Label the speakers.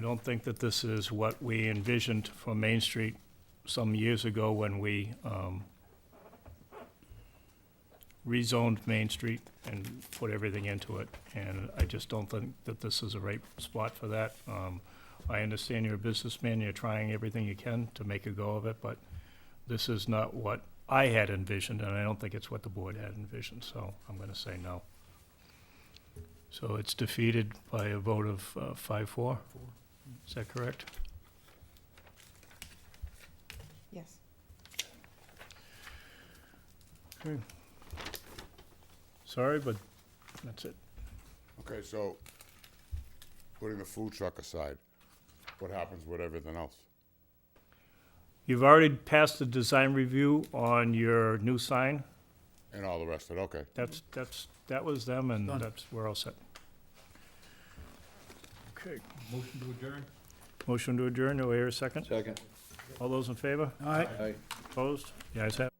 Speaker 1: I don't think that this is what we envisioned for Main Street some years ago when we um, rezoned Main Street and put everything into it. And I just don't think that this is the right spot for that. Um, I understand you're a businessman, you're trying everything you can to make a go of it, but this is not what I had envisioned, and I don't think it's what the board had envisioned, so I'm going to say no. So it's defeated by a vote of uh, five-four? Is that correct?
Speaker 2: Yes.
Speaker 1: Sorry, but that's it.
Speaker 3: Okay, so, putting the food truck aside, what happens with everything else?
Speaker 1: You've already passed the design review on your new sign.
Speaker 3: And all the rest of it, okay.
Speaker 1: That's, that's, that was them, and
Speaker 4: Done.
Speaker 1: that's, we're all set. Okay,
Speaker 5: Motion to adjourn?
Speaker 1: motion to adjourn, do I hear a second?
Speaker 6: Second.
Speaker 1: All those in favor?
Speaker 4: All right.
Speaker 6: Aye.
Speaker 1: Opposed? The ayes have it.